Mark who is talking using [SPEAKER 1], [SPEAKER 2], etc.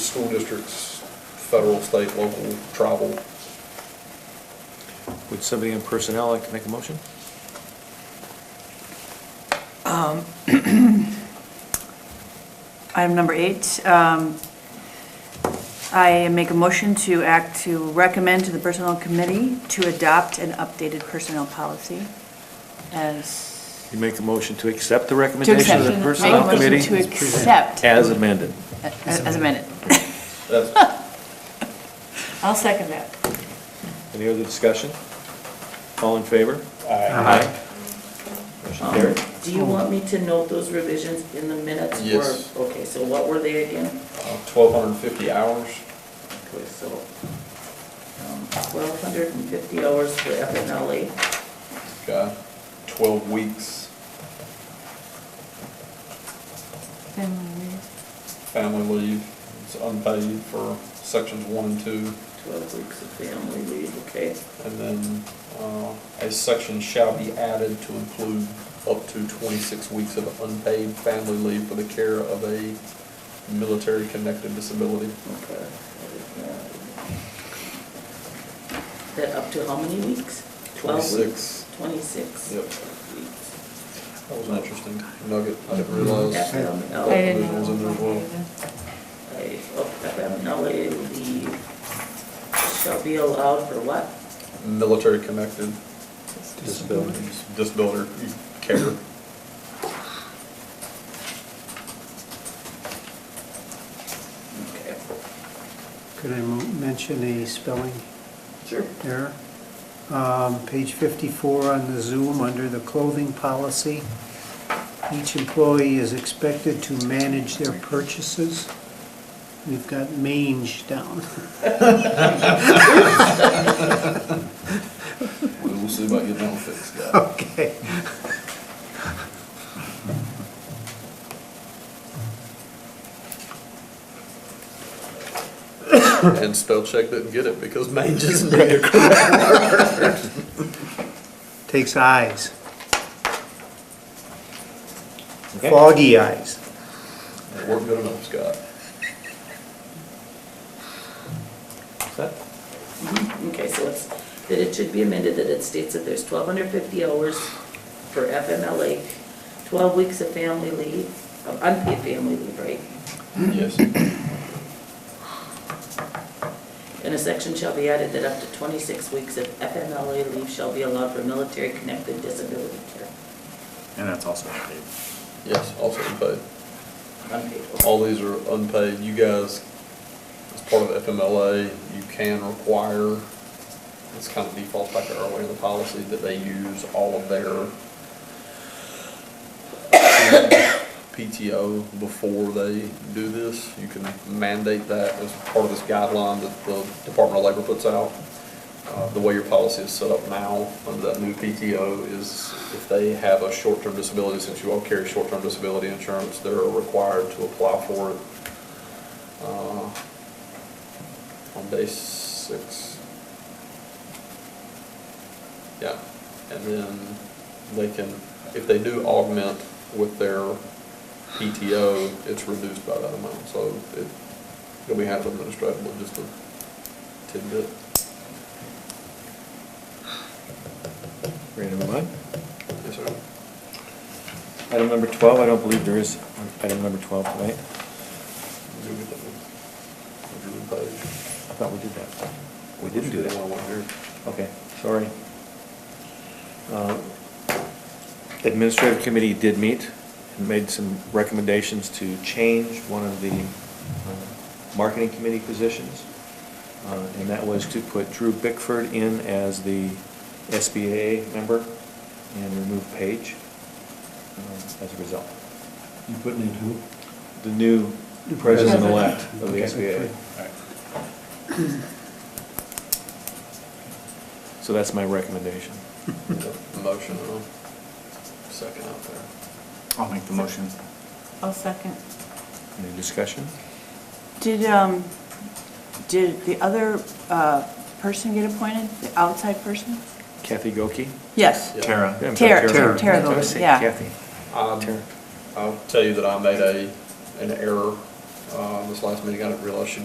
[SPEAKER 1] school districts, federal, state, local, tribal.
[SPEAKER 2] Would somebody in personnel like to make a motion?
[SPEAKER 3] Item number eight, um, I make a motion to act to recommend to the Personnel Committee to adopt an updated personnel policy as,
[SPEAKER 2] You make the motion to accept the
[SPEAKER 3] to
[SPEAKER 2] recommendation
[SPEAKER 3] accept,
[SPEAKER 2] of
[SPEAKER 3] make
[SPEAKER 2] the
[SPEAKER 3] a
[SPEAKER 2] personnel
[SPEAKER 3] motion to
[SPEAKER 2] committee
[SPEAKER 3] accept
[SPEAKER 2] as amended.
[SPEAKER 3] as as amended.
[SPEAKER 1] That's, uh,
[SPEAKER 3] I'll second that.
[SPEAKER 2] Any other discussion? All in favor? Aye. Motion
[SPEAKER 4] Um,
[SPEAKER 2] carried.
[SPEAKER 4] Do you want me to note those revisions in the minutes? or-
[SPEAKER 1] Yes.
[SPEAKER 4] Okay, so what were they again?
[SPEAKER 1] twelve hundred and fifty hours.
[SPEAKER 4] Okay, so, um, twelve hundred and fifty hours for FMLA,
[SPEAKER 1] Okay, twelve weeks, family leave, it's unpaid for sections one and two.
[SPEAKER 4] twelve weeks of family leave, okay?
[SPEAKER 1] And then, uh, a section shall be added to include up to twenty-six weeks of unpaid family leave for the care of a military-connected disability.
[SPEAKER 4] Okay. That up to how many weeks? Twelve weeks? Twenty-six.
[SPEAKER 1] Yep.
[SPEAKER 4] weeks.
[SPEAKER 1] That was an interesting nugget, I
[SPEAKER 4] Mm-hmm.
[SPEAKER 1] didn't realize.
[SPEAKER 4] FMLA.
[SPEAKER 3] I didn't
[SPEAKER 1] Those in there as well.
[SPEAKER 3] know.
[SPEAKER 4] Right, oh, FMLA leave shall be allowed for what?
[SPEAKER 1] Military-connected
[SPEAKER 2] Disabilities.
[SPEAKER 1] disability care.
[SPEAKER 4] Okay.
[SPEAKER 5] Could I mo- mention a spelling
[SPEAKER 4] Sure.
[SPEAKER 5] error? Um, Page 54 on the Zoom, under the clothing policy, each employee is expected to manage their purchases. We've got mange down.
[SPEAKER 1] We'll see about getting that fixed, guys.
[SPEAKER 5] Okay.
[SPEAKER 1] And spell check didn't get it because mange isn't in there.
[SPEAKER 5] Takes eyes,
[SPEAKER 2] Okay.
[SPEAKER 5] foggy eyes.
[SPEAKER 1] Worked good enough, Scott.
[SPEAKER 2] Set?
[SPEAKER 4] Mhm, Okay, so it's, that it should be amended that it states that there's twelve hundred fifty hours for FMLA, twelve weeks of family leave, of unpaid family leave, right?
[SPEAKER 1] Yes.
[SPEAKER 4] And a section shall be added that up to twenty-six weeks of FMLA leave shall be allowed for military-connected disability care.
[SPEAKER 6] And that's also paid.
[SPEAKER 1] Yes, also unpaid.
[SPEAKER 4] Unpaid.
[SPEAKER 1] All these are unpaid. You guys, as part of FMLA, you can require, it's kind of default back to earlier in the policy, that they use all of their PTO before they do this. You can mandate that as part of this guideline that the Department of Labor puts out. Uh, The way your policy is set up now, under that new PTO, is if they have a short-term disability, since you all carry short-term disability insurance, they're required to apply for it uh, on day six. Yeah, and then they can, if they do augment with their PTO, it's reduced by that amount, so it, it'll be half administratively, just a tidbit.
[SPEAKER 2] Ready to move on?
[SPEAKER 1] Yes, sir.
[SPEAKER 2] Item number 12, I don't believe there is item number 12 tonight.
[SPEAKER 1] Do we- do we pay?
[SPEAKER 2] I thought we did that. We didn't do
[SPEAKER 1] Well,
[SPEAKER 2] that.
[SPEAKER 1] we're here.
[SPEAKER 2] Okay, sorry. Uh, Administrative Committee did meet and made some recommendations to change one of the uh, Marketing Committee positions. Uh, And that was to put Drew Bickford in as the SBA member and remove Paige um, as a result.
[SPEAKER 7] You putting in who?
[SPEAKER 2] The new president-elect of the SBA.
[SPEAKER 5] Okay.
[SPEAKER 2] So that's my recommendation.
[SPEAKER 1] Motion, uh, second out there.
[SPEAKER 6] I'll make the motion.
[SPEAKER 3] I'll second.
[SPEAKER 2] Any discussion?
[SPEAKER 3] Did, um, did the other uh, person get appointed, the outside person?
[SPEAKER 2] Kathy Goki?
[SPEAKER 3] Yes.
[SPEAKER 1] Yeah.
[SPEAKER 6] Tara.
[SPEAKER 2] I'm sorry,
[SPEAKER 3] Tara,
[SPEAKER 5] Tara.
[SPEAKER 3] Tara
[SPEAKER 2] I thought I
[SPEAKER 3] Goki,
[SPEAKER 2] said
[SPEAKER 3] yeah.
[SPEAKER 2] Kathy.
[SPEAKER 1] Um,
[SPEAKER 2] Tara.
[SPEAKER 1] I'll tell you that I made a, an error, uh, this last meeting, I didn't realize she